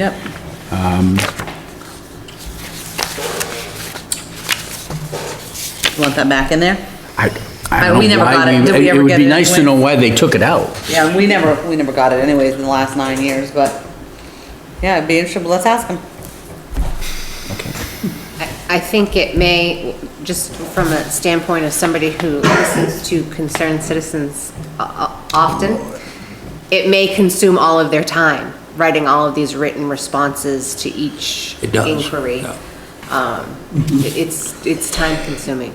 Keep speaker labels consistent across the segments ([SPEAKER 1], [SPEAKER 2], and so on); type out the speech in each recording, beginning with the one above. [SPEAKER 1] Yep. Um, You Want that back in there?
[SPEAKER 2] I, I
[SPEAKER 1] Uh,
[SPEAKER 2] don't
[SPEAKER 1] we
[SPEAKER 2] know
[SPEAKER 1] never got
[SPEAKER 2] why,
[SPEAKER 1] it. Did we
[SPEAKER 2] we- it
[SPEAKER 1] ever
[SPEAKER 2] would
[SPEAKER 1] get
[SPEAKER 2] be
[SPEAKER 1] it
[SPEAKER 2] nice to
[SPEAKER 1] anyway?
[SPEAKER 2] know why they took it out.
[SPEAKER 1] Yeah, and we never, we never got it anyways in the last nine years, but, yeah, it'd be interesting, but let's ask them.
[SPEAKER 3] I I think it may, just from a standpoint of somebody who listens to concerned citizens o- o- often, it may consume all of their time, writing all of these written responses to each
[SPEAKER 2] It does,
[SPEAKER 3] inquiry. Um, it- It's, it's time consuming.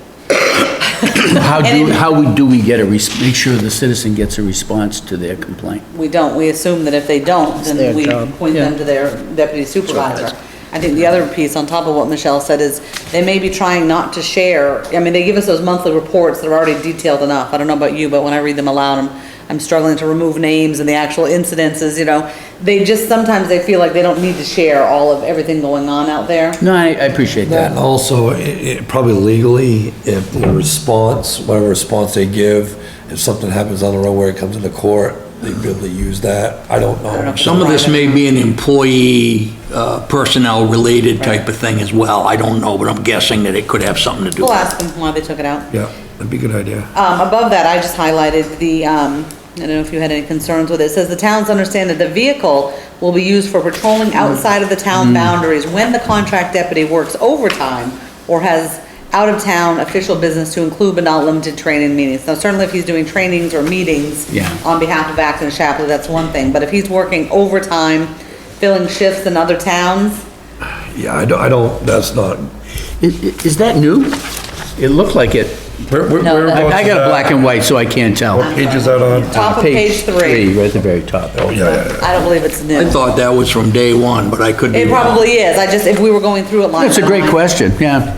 [SPEAKER 2] How do, how we- do we get a, res- make sure the citizen gets a response to their complaint?
[SPEAKER 1] We don't, we assume that if they don't, then we point them to their deputy supervisor. I think the other piece on top of what Michelle said is, they may be trying not to share, I mean, they give us those monthly reports that are already detailed enough, I don't know about you, but when I read them aloud, I'm, I'm struggling to remove names and the actual incidences, you know, they just, sometimes they feel like they don't need to share all of everything going on out there.
[SPEAKER 2] No, I, I appreciate that.
[SPEAKER 4] And also, i- i- probably legally, if the response, whatever response they give, if something happens on the road where it comes into court, they'd be able to use that. I don't know.
[SPEAKER 5] Some of this may be an employee, uh, personnel-related type of thing as well. I don't know, but I'm guessing that it could have something to do
[SPEAKER 1] We'll
[SPEAKER 5] with it.
[SPEAKER 1] ask them why they took it out.
[SPEAKER 4] Yeah, that'd be a good idea.
[SPEAKER 1] Um, above that, I just highlighted the, um, I don't know if you had any concerns with it, it says the towns understand that the vehicle will be used for patrolling
[SPEAKER 2] Mm.
[SPEAKER 1] outside of the town boundaries when the contract deputy works overtime or has out-of-town official business to include but not limited training meetings. Now certainly if he's doing trainings or meetings
[SPEAKER 2] Yeah.
[SPEAKER 1] on behalf of Acton and Shapley, that's one thing, but if he's working overtime, filling shifts in other towns,
[SPEAKER 4] Yeah, I don't, I don't, that's not.
[SPEAKER 2] Is, is that new? It looked like it. I I got a black and white, so I can't tell.
[SPEAKER 4] Page is that on?
[SPEAKER 1] top of page three,
[SPEAKER 2] Right at the very top.
[SPEAKER 4] Oh, yeah, yeah, yeah.
[SPEAKER 1] I don't believe it's new.
[SPEAKER 5] I thought that was from day one, but I could be
[SPEAKER 1] It
[SPEAKER 5] wrong.
[SPEAKER 1] probably is, I just, if we were going through it line
[SPEAKER 2] That's a
[SPEAKER 1] by
[SPEAKER 2] great
[SPEAKER 1] line.
[SPEAKER 2] question, yeah.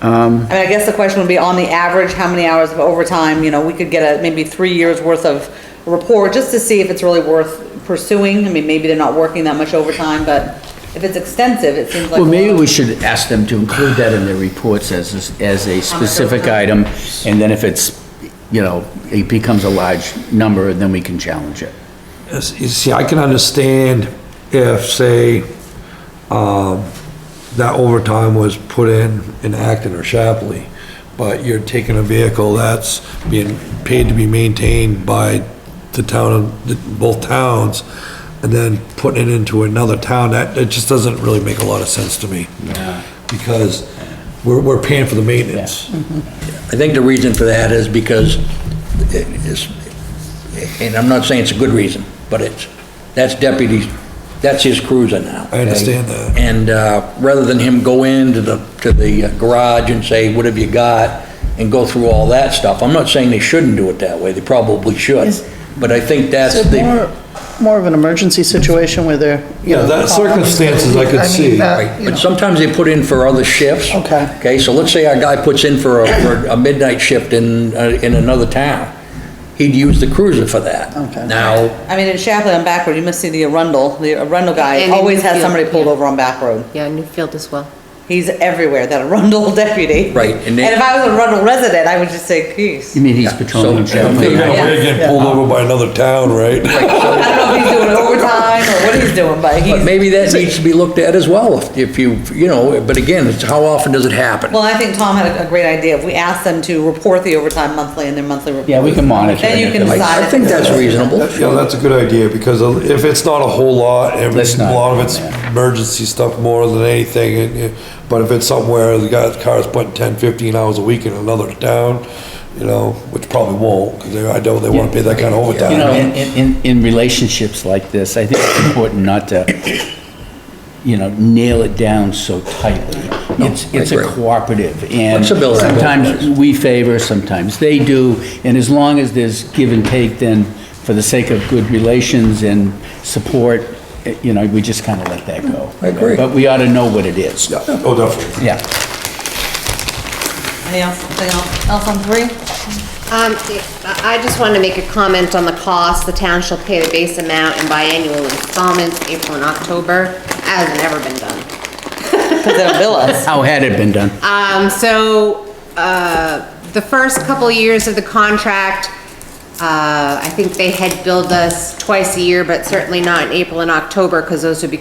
[SPEAKER 2] Um,
[SPEAKER 1] I mean, I guess the question would be, on the average, how many hours of overtime, you know, we could get a, maybe three years' worth of report, just to see if it's really worth pursuing. I mean, maybe they're not working that much overtime, but if it's extensive, it seems like.
[SPEAKER 2] Well, maybe we should ask them to include that in their reports as, as a specific item, and then if it's, you know, it becomes a large number, then we can challenge it.
[SPEAKER 4] Yes, You see, I can understand if, say, um, that overtime was put in in Acton or Shapley, but you're taking a vehicle that's being paid to be maintained by the town, of the- both towns, and then putting it into another town, that, it just doesn't really make a lot of sense to me. Because we're, we're paying for the maintenance.
[SPEAKER 5] I think the reason for that is because it is, and I'm not saying it's a good reason, but it's, that's deputy, that's his cruiser now.
[SPEAKER 4] I understand that.
[SPEAKER 5] And, uh, rather than him go into the, to the uh, garage and say, what have you got? And go through all that stuff. I'm not saying they shouldn't do it that way. They probably should.
[SPEAKER 6] Is-
[SPEAKER 5] But I think that's
[SPEAKER 6] Is it
[SPEAKER 5] the,
[SPEAKER 6] more, more of an emergency situation where they're, you
[SPEAKER 4] Yeah,
[SPEAKER 6] know...
[SPEAKER 4] that circumstances I could
[SPEAKER 6] mean,
[SPEAKER 4] see.
[SPEAKER 6] that,
[SPEAKER 5] right,
[SPEAKER 6] Uh, you
[SPEAKER 5] but
[SPEAKER 6] know.
[SPEAKER 5] sometimes they put in for other shifts.
[SPEAKER 6] Okay.
[SPEAKER 5] Okay, so let's say our guy puts in for a, for a midnight shift in, uh, in another town. He'd use the cruiser for that.
[SPEAKER 6] Okay.
[SPEAKER 5] Now,
[SPEAKER 1] I mean, in Chapley on back road, you must see the Arundel, the Arundel guy
[SPEAKER 3] And in
[SPEAKER 1] always has
[SPEAKER 3] Newfield,
[SPEAKER 1] somebody pulled
[SPEAKER 3] yeah.
[SPEAKER 1] over on back road.
[SPEAKER 3] Yeah, Newfield as well.
[SPEAKER 1] He's everywhere, that Arundel deputy.
[SPEAKER 5] Right, and
[SPEAKER 1] And
[SPEAKER 5] they-
[SPEAKER 1] if I was a Arundel resident, I would just say, geez.
[SPEAKER 2] You mean he's
[SPEAKER 5] so-
[SPEAKER 2] patrolling
[SPEAKER 4] They're
[SPEAKER 2] Chapman?
[SPEAKER 4] gonna
[SPEAKER 1] Yeah.
[SPEAKER 4] get pulled over by another town, right?
[SPEAKER 1] I don't know if he's doing overtime or what he's doing, but he's.
[SPEAKER 5] But maybe that needs to be looked at as well, if- if you, you know, but again, it's how often does it happen?
[SPEAKER 1] Well, I think Tom had a- a great idea. If we asked them to report the overtime monthly in their monthly report.
[SPEAKER 2] Yeah, we can monitor.
[SPEAKER 1] Then you
[SPEAKER 2] it.
[SPEAKER 1] can
[SPEAKER 5] I-
[SPEAKER 1] decide.
[SPEAKER 5] I think that's reasonable.
[SPEAKER 4] That- Yeah, that's a good idea, because if it's not a whole lot, if
[SPEAKER 2] Let's
[SPEAKER 4] it's- a
[SPEAKER 2] not,
[SPEAKER 4] lot of it's
[SPEAKER 2] yeah.
[SPEAKER 4] emergency stuff more than anything, and, you- but if it's somewhere, the guy's car's putting 10, 15 hours a week in another town, you know, which probably won't, because I don't, they wanna pay that kind of
[SPEAKER 2] You know,
[SPEAKER 4] overtime.
[SPEAKER 2] in, in, in- in relationships like this, I think it's important not to, you know, nail it down so tightly. It's,
[SPEAKER 5] I
[SPEAKER 2] it's a
[SPEAKER 5] agree.
[SPEAKER 2] cooperative, and
[SPEAKER 5] Flexibility.
[SPEAKER 2] sometimes we favor, sometimes they do, and as long as there's give and take, then for the sake of good relations and support, eh, you know, we just kind of let that go.
[SPEAKER 5] I agree.
[SPEAKER 2] But we ought to know what it is.
[SPEAKER 4] Yeah, oh, definitely.
[SPEAKER 2] Yeah.
[SPEAKER 1] Anything else, anything else else on three?
[SPEAKER 3] Um, I I just wanted to make a comment on the cost. The town shall pay the base amount in biannual installments, April and October, as never been done.
[SPEAKER 1] Because they'll bill us.
[SPEAKER 2] How had it been done?
[SPEAKER 3] Um, so, uh, the first couple years of the contract, Uh, I think they had billed us twice a year, but certainly not in April and October, because those would be